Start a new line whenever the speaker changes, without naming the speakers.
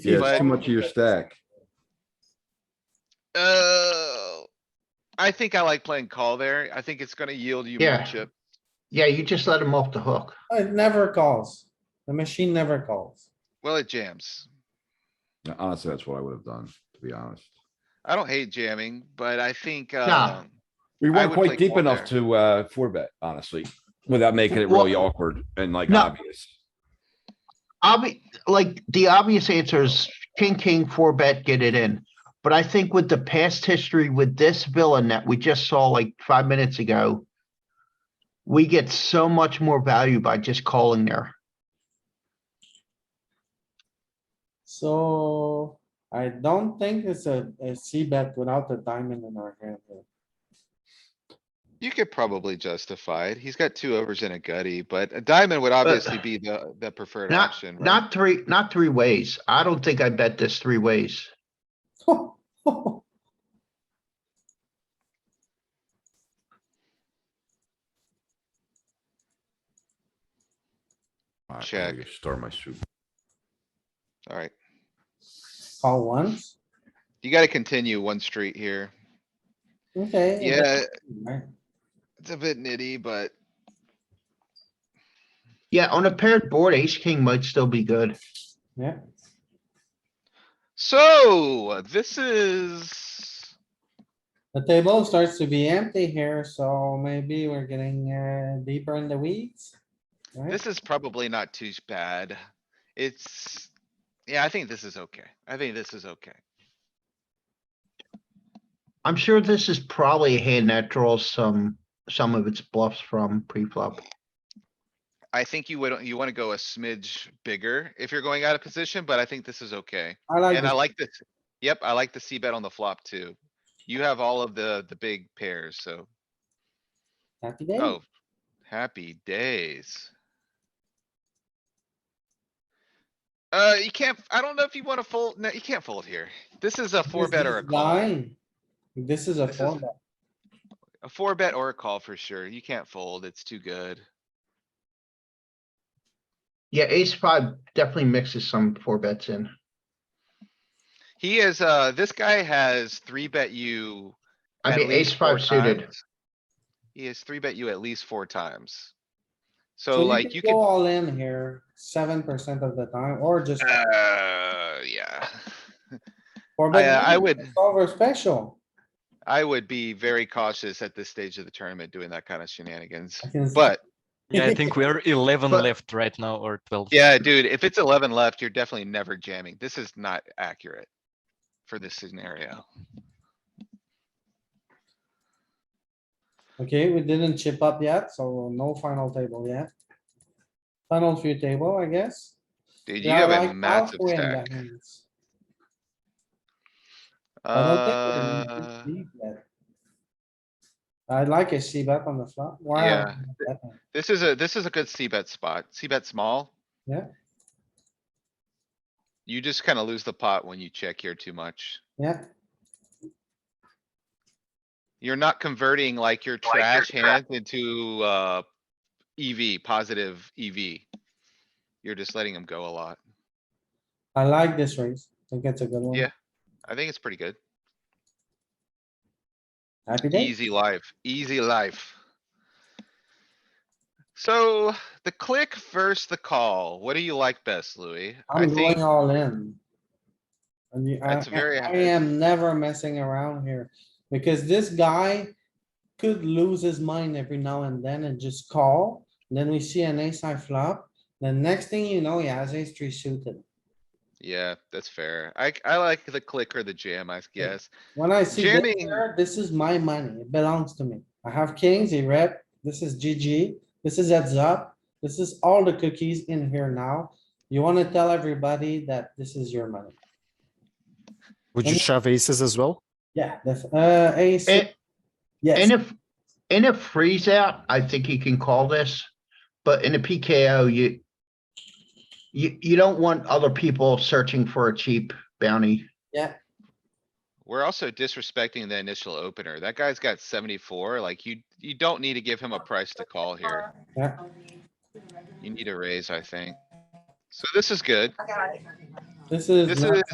Yeah,
But-
it's too much of your stack.
Uh, I think I like playing call there. I think it's gonna yield you more
Yeah.
chip.
Yeah, you just let him off the hook.
It never calls. The machine never calls.
Well, it jams.
Honestly, that's what I would have done, to be honest.
I don't hate jamming, but I think,
Nah.
um,
We
I
weren't
would
quite
take
deep
one
enough
there.
to, uh, four bet, honestly, without making it really
Well-
awkward and like
No.
obvious.
Obvi, like, the obvious answer is king, king, four bet, get it in. But I think with the past history with this villain that we just saw like five minutes ago, we get so much more value by just calling there.
So I don't think it's a, a C bet without the diamond in our hand. here.
you could probably justify it. He's got two overs and a gutty, but a diamond would obviously be the, the preferred
Not-
option. right?
Not three, not three ways. I don't think I bet this three ways.
All right, I
Check.
gotta Start my soup.
Alright,
Call once,
you gotta continue one street here.
okay. and then-
Yeah,
Right.
it's a bit nitty, but
Yeah, on a paired board, ace, king might still be good.
Yeah,
so this is.
the table starts to be empty here, so maybe we're getting uh, deeper in the weeds. right?
This is probably not too bad. It's, yeah, I think this is okay. I think this is okay.
I'm sure this is probably a hand that draws some, some of its bluffs from pre-flop.
I think you would, you wanna go a smidge bigger if you're going out of position, but I think this is okay.
I like,
And I
this.
like this. Yep, I like the C bet on the flop too. You have all of the, the big pairs, so,
happy day.
oh, happy days. Uh, you can't, I don't know if you wanna fold, no, you can't fold here. This is a four
This
bet
is
or a call.
blind. This is a
This is-
four bet.
A four bet or a call for sure. You can't fold. It's too good.
Yeah, ace five definitely mixes some four bets in.
He is, uh, this guy has three bet you.
I
at
mean,
least
ace five
four
suited.
times. He has three bet you at least four times.
So
So like you
Go
can,
all in here, seven percent of the time, or just
uh, yeah.
four
I,
bet.
uh, I
lead,
would,
it's Over special.
I would be very cautious at this stage of the tournament doing that kind of shenanigans.
I can see.
But
Yeah, I think we're eleven
But-
left right now or twelve.
yeah, dude, if it's eleven left, you're definitely never jamming. This is not accurate for this scenario.
Okay, we didn't chip up yet, so no final table yet. Final few table, I guess.
Dude, you
Yeah, I
have a
like
massive
halfway in the
stack.
hands. I don't think we're
Uh,
in deep yet. I like a C bet on the flop. Wow.
yeah. This is a, this is a good C bet spot. C bet small.
Yeah.
You just kinda lose the pot when you check here too much.
Yeah,
You're not converting like your trash hand into, uh, EV, positive EV. You're just letting them go a lot.
I like this raise. I think it's a good one.
Yeah. I think it's pretty good.
Happy day.
Easy life, easy life. So the click versus the call. What do you like best, Louis? I
I'm
think
going all in. And you, I,
That's very
I- I
accurate.
am never messing around here, because this guy could lose his mind every now and then and just call. Then we see an ace high flop, the next thing you know, he has ace three suited.
Yeah, that's fair. I, I like the click or the jam, I guess.
When I see this,
Jamming.
here, this is my money, it belongs to me. I have kings, he rep, this is GG, this is heads up, this is all the cookies in here now. You wanna tell everybody that this is your money.
Would you
And-
shove aces as well?
Yeah, that's, uh, ace,
And,
yes.
and if, in a freeze out, I think you can call this, but in a PKO, you you, you don't want other people searching for a cheap bounty.
We're also disrespecting the initial opener. That guy's got seventy-four, like you, you don't need to give him a price to call here.
Yeah.
You need a raise, I think. So this is good.
This is.
This
not-
is